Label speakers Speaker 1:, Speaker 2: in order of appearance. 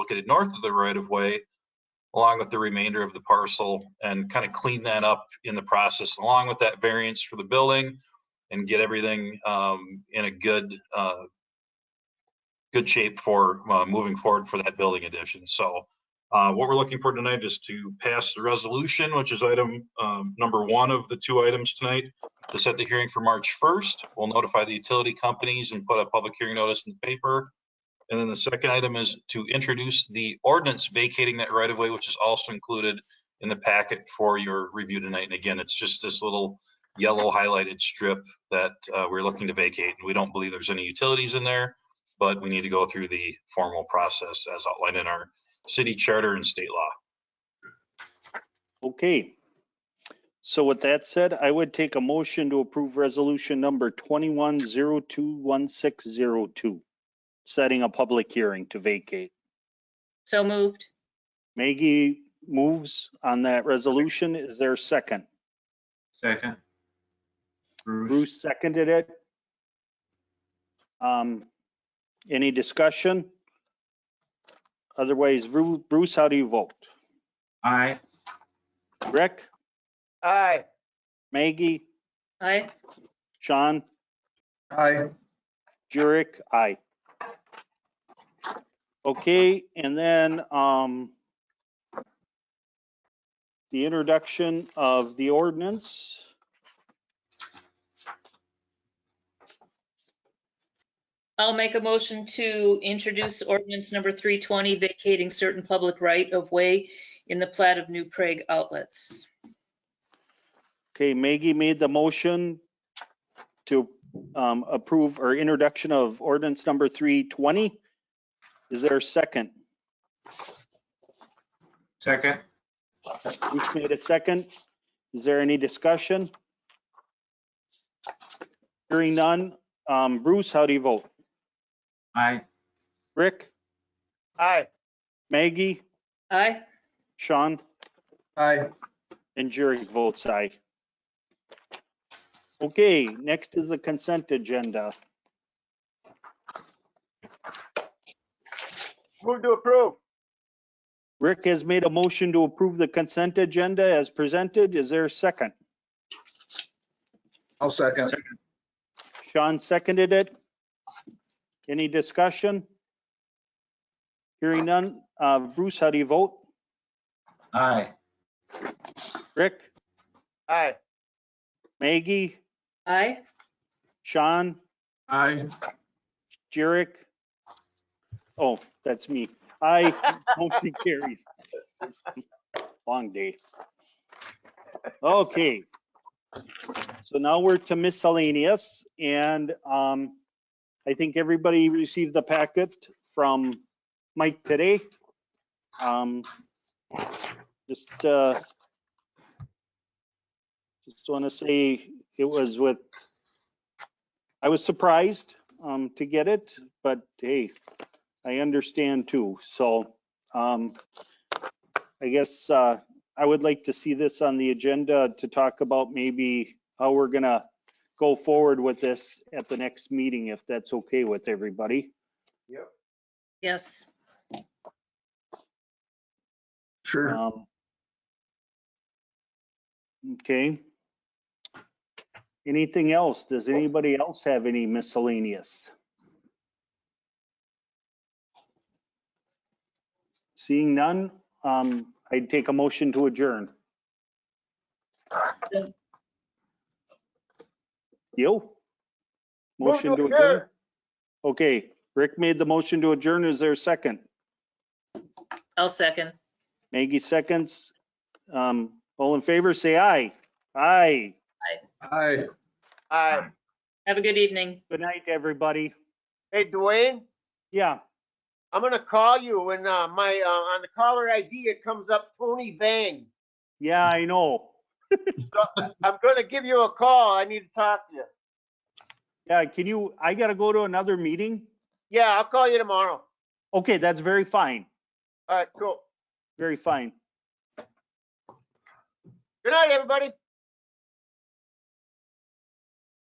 Speaker 1: located north of the right of way along with the remainder of the parcel and kind of clean that up in the process along with that variance for the building and get everything um, in a good uh, good shape for uh, moving forward for that building addition. So uh, what we're looking for tonight is to pass the resolution, which is item um, number one of the two items tonight, to set the hearing for March 1st. We'll notify the utility companies and put a public hearing notice in the paper. And then the second item is to introduce the ordinance vacating that right of way, which is also included in the packet for your review tonight. And again, it's just this little yellow highlighted strip that uh, we're looking to vacate. And we don't believe there's any utilities in there, but we need to go through the formal process as outlined in our city charter and state law.
Speaker 2: Okay. So with that said, I would take a motion to approve resolution number 21021602, setting a public hearing to vacate.
Speaker 3: So moved.
Speaker 2: Maggie moves on that resolution. Is there a second?
Speaker 4: Second. Bruce,
Speaker 2: Bruce seconded it. Um, Any discussion? Otherwise, Bru- Bruce, how do you vote?
Speaker 4: aye.
Speaker 2: Rick,
Speaker 5: aye,
Speaker 2: Maggie,
Speaker 3: Aye.
Speaker 2: Sean?
Speaker 4: Aye.
Speaker 2: Jurick, aye. Okay, and then, um, the introduction of the ordinance.
Speaker 3: I'll make a motion to introduce ordinance number 320 vacating certain public right-of-way in the plat of New Prague outlets.
Speaker 2: Okay, Maggie made the motion to, um, approve or introduction of ordinance number three twenty. Is there a second?
Speaker 4: Second.
Speaker 2: Bruce made a second. Is there any discussion? Hearing none. Um, Bruce, how do you vote?
Speaker 4: Aye.
Speaker 2: Rick,
Speaker 5: aye.
Speaker 2: Maggie?
Speaker 3: Aye.
Speaker 2: Sean?
Speaker 4: Aye.
Speaker 2: And Jerry votes aye. Okay, next is the consent agenda.
Speaker 5: Move to approve,
Speaker 2: Rick has made a motion to approve the consent agenda as presented. Is there a second?
Speaker 4: I'll second.
Speaker 2: Sean seconded it. Any discussion? Hearing none. Uh, Bruce, how do you vote?
Speaker 4: Aye.
Speaker 2: Rick,
Speaker 5: aye.
Speaker 2: Maggie,
Speaker 3: Aye.
Speaker 2: Sean,
Speaker 4: Aye.
Speaker 2: Jerick? Oh, that's me. I, motion carries. Long day. Okay. So now we're to miscellaneous and um, I think everybody received the packet from Mike today. Um, Just, uh, just want to say it was with, I was surprised um, to get it, but hey, I understand too. So um, I guess uh, I would like to see this on the agenda to talk about maybe how we're gonna go forward with this at the next meeting, if that's okay with everybody.
Speaker 3: Yes.
Speaker 4: Sure.
Speaker 2: Um, Okay. Anything else? Does anybody else have any miscellaneous? Seeing none, um, I'd take a motion to adjourn. You?
Speaker 5: Move
Speaker 2: Motion to adjourn?
Speaker 5: adjourn.
Speaker 2: Okay, Rick made the motion to adjourn. Is there a second?
Speaker 3: I'll second.
Speaker 2: Maggie seconds. Um, all in favor, say aye. Aye.
Speaker 4: Aye.
Speaker 5: Aye.
Speaker 3: Have a good evening.
Speaker 2: Good night, everybody.
Speaker 5: Hey, Dwayne,
Speaker 2: Yeah,
Speaker 5: I'm gonna call you when, uh, my, uh, on the caller ID, it comes up Tony Vang.
Speaker 2: yeah, I know.
Speaker 5: I'm gonna give you a call, I need to talk to you.
Speaker 2: Yeah, can you, I gotta go to another meeting.
Speaker 5: Yeah, I'll call you tomorrow.
Speaker 2: Okay, that's very fine,
Speaker 5: All right, cool.
Speaker 2: very fine.
Speaker 5: Good night, everybody.